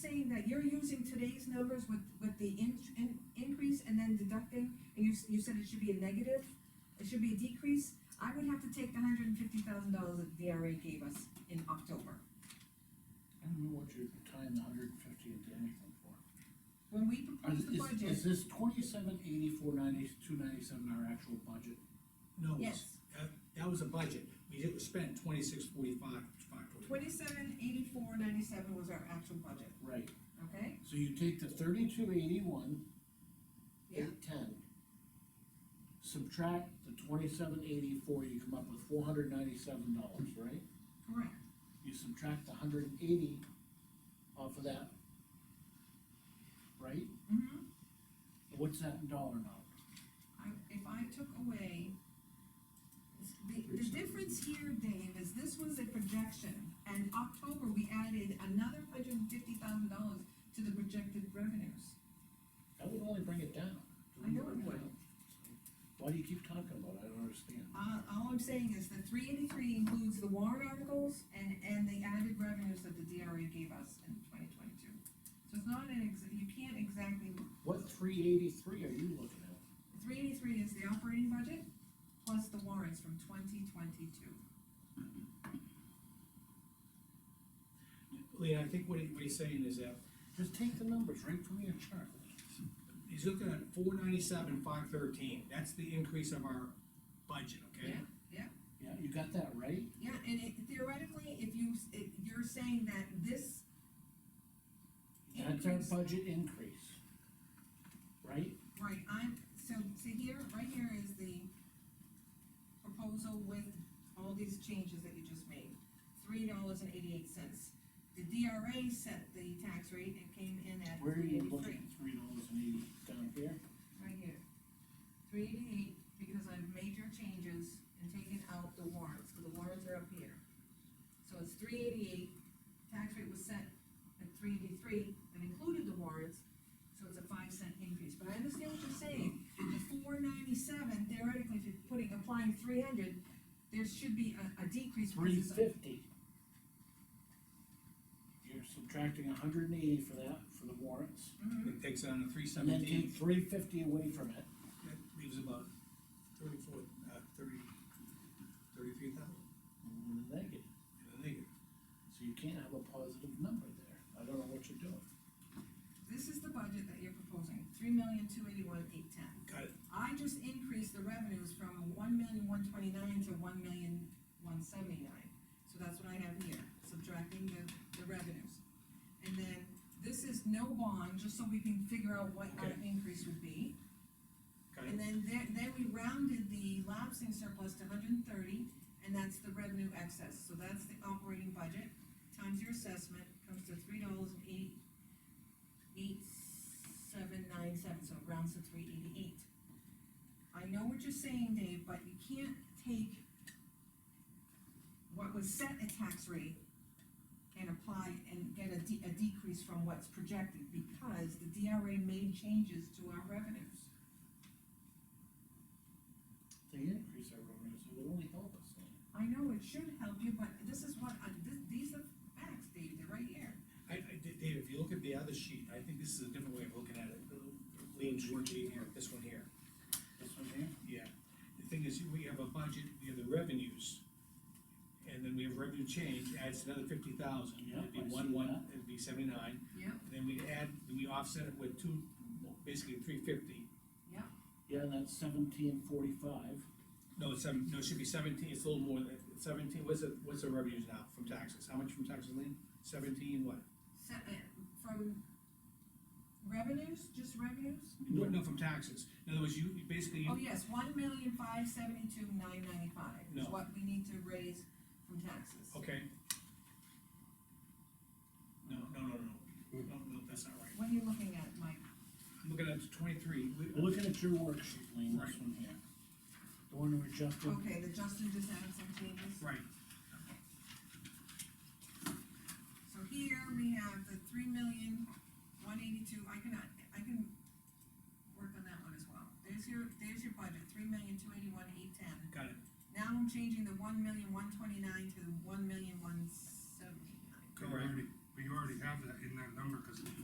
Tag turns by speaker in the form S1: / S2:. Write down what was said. S1: that you're using today's numbers with, with the in, in, increase and then deducting, and you, s- you said it should be a negative, it should be a decrease, I would have to take the hundred and fifty thousand dollars that DRA gave us in October.
S2: I don't know what you're tying the hundred and fifty into anything for.
S1: When we
S2: Is,
S1: proposed the
S2: is-
S1: budget,
S2: is this twenty-seven eighty-four ninety, two ninety-seven our actual budget?
S3: No,
S1: yes,
S3: it's- that, that was a budget, we did, we spent twenty-six forty-five, five forty.
S1: twenty-seven eighty-four ninety-seven was our actual budget,
S2: Right.
S1: okay?
S2: So you take the thirty-two eighty-one,
S1: Yeah.
S2: eight ten. Subtract the twenty-seven eighty-four, you come up with four hundred ninety-seven dollars, right?
S1: Correct,
S2: You subtract the hundred and eighty off of that. Right?
S1: mm-hmm.
S2: What's that in dollar amount?
S1: I, if I took away, the, the difference here, Dave, is this was a projection, and October, we added another hundred and fifty thousand dollars to the projected revenues.
S2: That would only bring it down.
S1: I know it would.
S2: Why do you keep talking about it? I don't understand.
S1: Uh, all I'm saying is the three eighty-three includes the warrant articles and, and the added revenues that the DRA gave us in twenty twenty-two. So it's not an ex, you can't exactly,
S2: What three eighty-three are you looking at?
S1: three eighty-three is the operating budget, plus the warrants from twenty twenty-two.
S3: Lean, I think what he, what he's saying is that,
S2: Just take the numbers right from your chart.
S3: he's looking at four ninety-seven, five thirteen, that's the increase of our budget, okay?
S1: Yeah, yeah.
S2: Yeah, you got that right?
S1: Yeah, and it theoretically, if you, s- it- you're saying that this.
S2: That's our
S1: increase-
S2: budget increase. Right?
S1: Right, I'm, so, see here, right here is the proposal with all these changes that you just made. Three dollars and eighty-eight cents. The DRA set the tax rate, it came in at
S2: Where are
S1: three
S2: you
S1: eighty-three,
S2: looking, three dollars and eighty, down here?
S1: right here. Three eighty-eight, because I've made your changes and taken out the warrants, because the warrants are up here. So it's three eighty-eight, tax rate was set at three eighty-three, that included the warrants, so it's a five cent increase, but I understand what you're saying. The four ninety-seven, theoretically, if you're putting, applying three hundred, there should be a, a decrease. because
S2: Three
S1: it's a-
S2: fifty. You're subtracting a hundred and eighty for that, for the warrants.
S1: Mhm.
S3: It takes on a three
S2: And then
S3: seventeen,
S2: take three fifty away from it.
S3: that leaves about thirty-four, uh, thirty, thirty-three thousand,
S2: And then negative.
S3: in the negative.
S2: So you can't have a positive number there. I don't know what you're doing.
S1: This is the budget that you're proposing, three million, two eighty-one, eight ten.
S3: Got it,
S1: I just increased the revenues from one million one twenty-nine to one million one seventy-nine. So that's what I have here, subtracting the, the revenues. And then, this is no bond, just so we can figure out what our
S3: Okay.
S1: increase would be.
S3: got
S1: And
S3: it,
S1: then there, then we rounded the lapsing surplus to hundred and thirty, and that's the revenue excess, so that's the operating budget, times your assessment, comes to three dollars and eight, eight, seven, nine, seven, so it rounds to three eighty-eight. I know what you're saying, Dave, but you can't take what was set at tax rate and apply and get a de- a decrease from what's projected, because the DRA made changes to our revenues.
S2: They increase our revenue, so it would only help us.
S1: I know it should help you, but this is what, I- this, these are facts, Dave, they're right here.
S3: I, I, Dave, if you look at the other sheet, I think this is a different way of looking at it, Lean's worksheet here, this one here.
S2: This one here?
S3: Yeah, the thing is, we have a budget, we have the revenues, and then we have revenue change, adds another fifty thousand, it'd be
S2: Yeah, I see
S3: one, one,
S2: that.
S3: it'd be seventy-nine,
S1: Yep.
S3: and then we add, we offset it with two, basically three fifty.
S1: Yep,
S2: Yeah, and that's seventeen forty-five.
S3: No, it's seven, no, it should be seventeen, it's a little more than, seventeen, what's the, what's the revenues now from taxes, how much from taxes, Lean? Seventeen, what?
S1: so, uh, from revenues, just revenues?
S3: No, no, from taxes, in other words, you, you basically,
S1: Oh, yes, one million five seventy-two nine ninety-five is
S3: No. Oh.
S1: what we need to raise from taxes.
S3: okay. No, no, no, no, no, no, that's not right,
S1: What are you looking at, Mike?
S3: I'm looking at twenty-three, we,
S2: Looking at your worksheet, Lean, this one here. The one we
S3: Oh.
S2: adjusted,
S1: Okay, the Justin just added some changes.
S3: right,
S1: So here we have the three million, one eighty-two, I can, I can work on that one as well. There's your, there's your budget, three million, two eighty-one, eight ten.
S3: got it.
S1: Now I'm changing the one million, one twenty-nine to one million, one seventy-nine.
S4: But you
S3: Correct.
S4: already- But you already have that